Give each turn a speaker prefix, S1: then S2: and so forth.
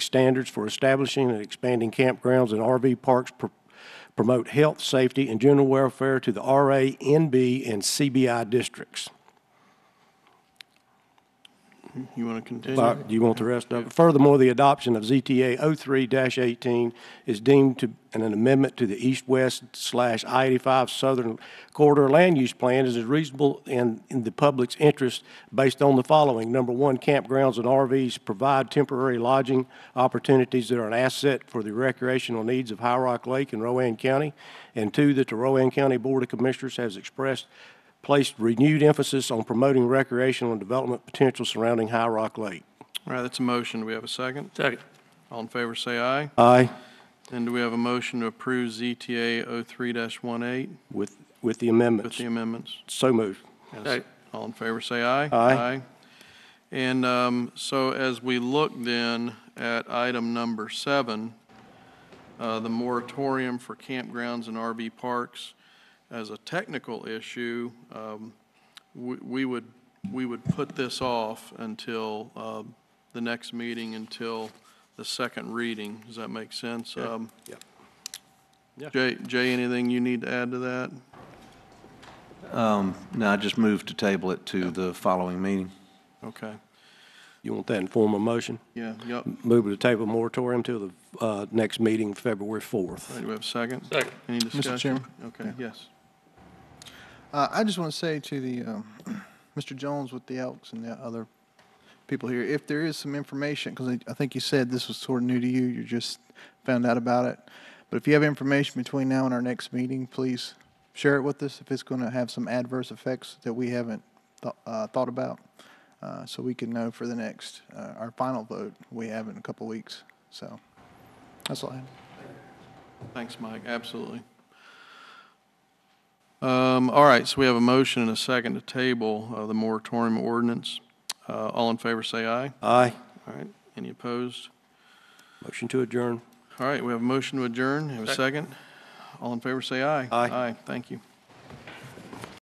S1: standards for establishing and expanding campgrounds and RV parks, pro- promote health, safety, and general welfare to the RA, NB, and CBI districts.
S2: You want to
S1: Uh,
S2: continue?
S1: Do you want the rest of it? Furthermore, the adoption of ZTA 03-18 is deemed to, an amendment to the east-west slash I-85 Southern Corridor Land Use Plan as is reasonable in, in the public's interest based on the following. Number one, campgrounds and RVs provide temporary lodging opportunities that are an asset for the recreational needs of High Rock Lake and Rowan County. And two, that the Rowan County Board of Commissioners has expressed placed renewed emphasis on promoting recreational and development potential surrounding High Rock Lake.
S2: All right, that's a motion. Do we have a second?
S3: Second.
S2: All in favor, say aye.
S1: Aye.
S2: And do we have a motion to approve ZTA 03-18
S1: With, with the
S2: with
S1: amendments.
S2: the amendments?
S1: So moved.
S2: Yes.
S3: Second.
S2: All in favor, say aye.
S1: Aye.
S2: And um, so as we look then at item number seven, uh, the moratorium for campgrounds and RV parks as a technical issue, um, we- we would, we would put this off until um, the next meeting, until the second reading. Does that make sense? Um,
S1: Yep.
S2: Jay, Jay, anything you need to add to that?
S4: No, I just moved to table it to the following meeting.
S2: Okay,
S1: You want that in form of motion?
S2: yeah, yep.
S1: Move to table moratorium till the uh, next meeting, February 4th.
S2: All right, do we have a second?
S3: Second.
S2: Any discussion?
S5: Chairman?
S2: Okay, yes.
S5: Uh, I just want to say to the, um, Mr. Jones with the Elks and the other people here, if there is some information, because I think you said this was sort of new to you, you just found out about it. But if you have information between now and our next meeting, please share it with us if it's going to have some adverse effects that we haven't thought, uh, thought about. Uh, so we can know for the next, uh, our final vote we have in a couple weeks. So that's all I have.
S2: Thanks, Mike, absolutely. Um, All right, so we have a motion and a second to table of the moratorium ordinance. Uh, All in favor, say aye.
S1: Aye.
S2: All right, any opposed?
S1: Motion to adjourn.
S2: All right, we have a motion to adjourn, have a second? All in favor, say aye.
S1: Aye.
S2: Aye, thank you.